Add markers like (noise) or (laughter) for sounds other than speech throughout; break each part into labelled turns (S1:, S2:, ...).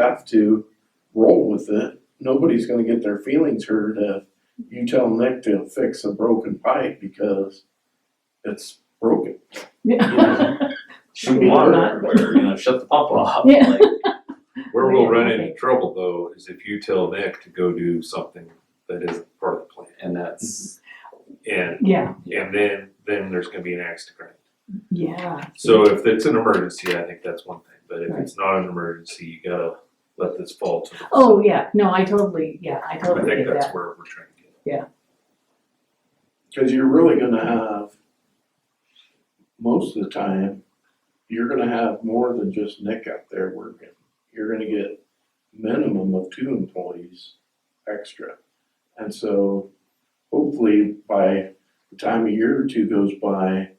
S1: have to roll with it. Nobody's gonna get their feelings hurt if you tell Nick to fix a broken pipe because it's broken.
S2: Yeah.
S3: shoot
S1: Maybe
S3: water,
S2: not.
S3: or, you know, shut the pump off.
S2: (laughs) Yeah.
S3: like,
S4: Where we'll run into
S2: Okay.
S4: trouble though is if you tell Nick to go do something that isn't part of the plan.
S3: And that's,
S4: And,
S2: (laughs) Yeah,
S4: and then, then there's gonna be an axe to grind.
S2: yeah,
S4: So if it's an emergency, I think that's one thing, but if it's not an emergency, you gotta let this fall to the.
S2: oh, yeah, no, I totally, yeah, I
S4: I
S2: totally
S4: think
S2: get
S4: that's
S2: that,
S4: where we're trying to get.
S1: Cause you're really gonna have, most of the time, you're gonna have more than just Nick out there working. You're gonna get minimum of two employees extra. And so hopefully by the time a year or two goes by,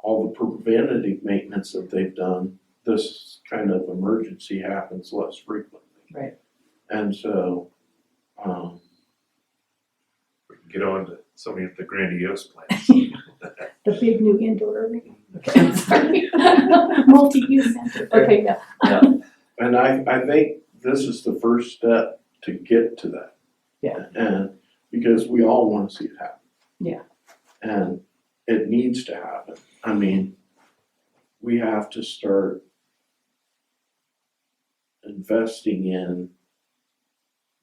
S1: all the preventative maintenance that they've done, this kind of emergency happens less frequently.
S2: Right.
S1: And so, um,
S4: We can get on to somebody at the grandiose plans.
S5: The big new indoor arena.
S2: okay, sorry. (laughs)
S5: Multi-use center.
S2: Okay, yeah,
S1: And I, I think this is the first step to get to that.
S2: Yeah.
S1: And, because we all wanna see it happen.
S2: Yeah.
S1: And it needs to happen, I mean, we have to start investing in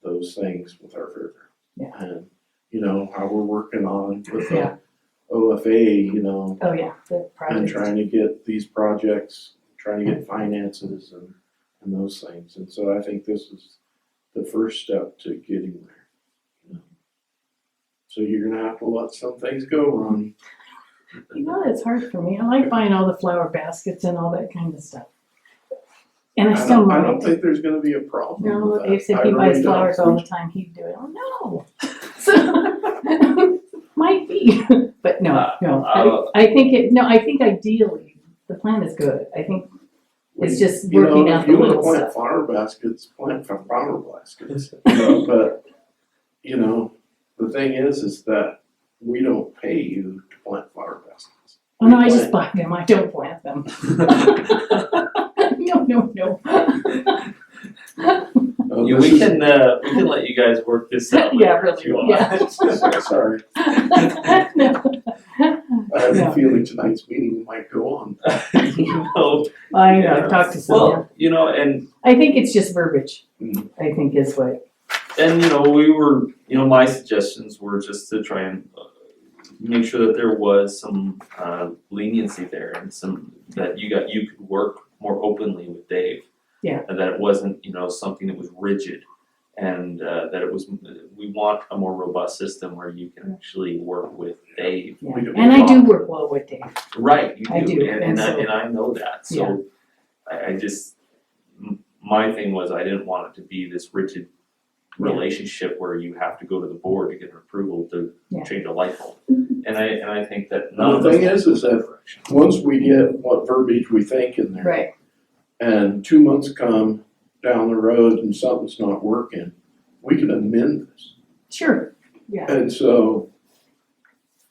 S1: those things with our fairground.
S2: Yeah.
S1: And, you know, how we're working on with
S2: Yeah.
S1: the OFA, you know,
S2: oh, yeah, the
S1: and
S2: project,
S1: trying to get these projects, trying to get finances and, and those things. And so I think this is the first step to getting there. you know. So you're gonna have to let some things go, Ronnie.
S2: you know, it's hard for me, I like buying all the flower baskets and all that kind of stuff. And I
S1: I
S2: still
S1: don't, I don't
S2: might,
S1: think there's gonna be a problem
S2: no,
S1: with that.
S2: Dave said
S1: I
S2: he
S1: really
S2: buys
S1: don't.
S2: flowers all the time, he'd do it, oh, no. (laughs) So, (laughs) might be, (laughs) but no, no,
S3: Uh,
S2: I, I think it, no, I think ideally, the plan is good, I think
S1: We-
S2: it's just
S1: You know,
S2: working out
S1: if
S2: the
S1: you wanna
S2: little
S1: plant
S2: stuff,
S1: flower baskets, plant f- flower baskets,
S3: (laughs)
S1: you know, but, you know, the thing is, is that we don't pay you to plant flower baskets.
S2: oh, no, I just buy them, I don't plant them. (laughs) No, no, no. (laughs)
S1: Uh,
S3: yeah,
S1: this
S3: we
S1: is-
S3: can, uh, we can let you guys work this
S2: (laughs)
S3: out
S2: Yeah,
S3: later if
S2: really,
S3: you want.
S2: yeah.
S1: Sorry,
S2: No.
S1: I have
S2: Yeah.
S1: a feeling tonight's meeting might go on.
S3: (laughs) You know,
S2: I know, I've talked to Sonia.
S3: well, you know, and
S2: I think it's just verbiage,
S1: Mhm.
S2: I think is what,
S3: and you know we were you know my suggestions were just to try and uh, make sure that there was some uh, leniency there and some that you got you could work more openly with Dave.
S2: Yeah.
S3: And that it wasn't you know something that was rigid, and uh, that it was we want a more robust system where you can actually work with Dave.
S2: yeah.
S1: We don't-
S2: And I do work well with Dave.
S3: Right, you do,
S2: I
S3: and
S2: do, and
S3: and I
S2: so-
S3: and I know that,
S2: Yeah.
S3: so I I just m- my thing was I didn't want it to be this rigid
S2: Yeah.
S3: relationship where you have to go to the board to get an approval to
S2: Yeah. Mm-hmm.
S3: change a light bulb. And I and I think that none
S1: The
S3: of us
S1: thing is, is that once we get what verbiage we think in there,
S2: Right.
S1: and two months come down the road and something's not working, we can amend this.
S2: Sure, yeah,
S1: And so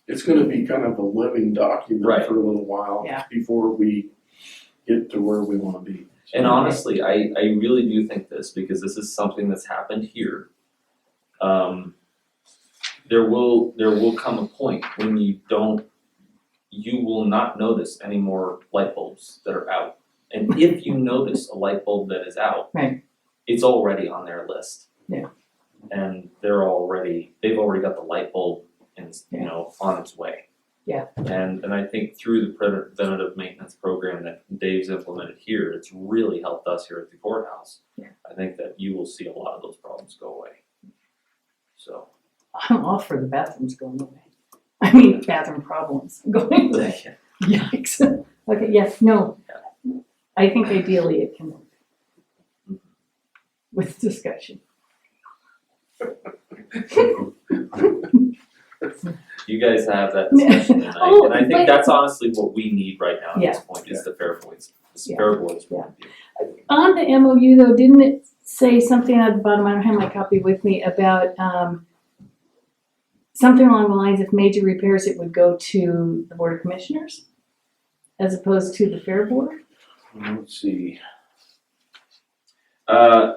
S1: it's gonna be kind of a living
S3: Right.
S1: document for a little while
S2: Yeah.
S1: before we get to where we wanna be.
S3: And honestly, I, I really do think this because this is something that's happened here. Um, there will there will come a point when you don't you will not notice any more light bulbs that are out. And if
S2: (laughs)
S3: you notice a light bulb that is out,
S2: Right.
S3: it's already on their list.
S2: Yeah.
S3: And they're already they've already got the light bulb and you
S2: Yeah.
S3: know on its way.
S2: Yeah.
S3: And and I think through the preventative maintenance program that Dave's implemented here, it's really helped us here at the courthouse.
S2: Yeah.
S3: I think that you will see a lot of those problems go away. So,
S2: I'm all for the bathrooms going away. I mean, bathroom problems (laughs) going away, yikes. Okay, yes, no, I think ideally it can work. With discussion.
S3: you guys have
S2: (laughs)
S3: that discussion tonight,
S2: Oh,
S3: and I think
S2: but-
S3: that's honestly what we need right now at this point, is the fair points, the
S2: Yeah.
S3: fair boards.
S2: Yeah. On the MOU though, didn't it say something at the bottom, I don't have my copy with me, about, um, something along the lines, if major repairs, it would go to the Board of Commissioners? As opposed to the Fair Board?
S1: Let's see.
S3: Uh,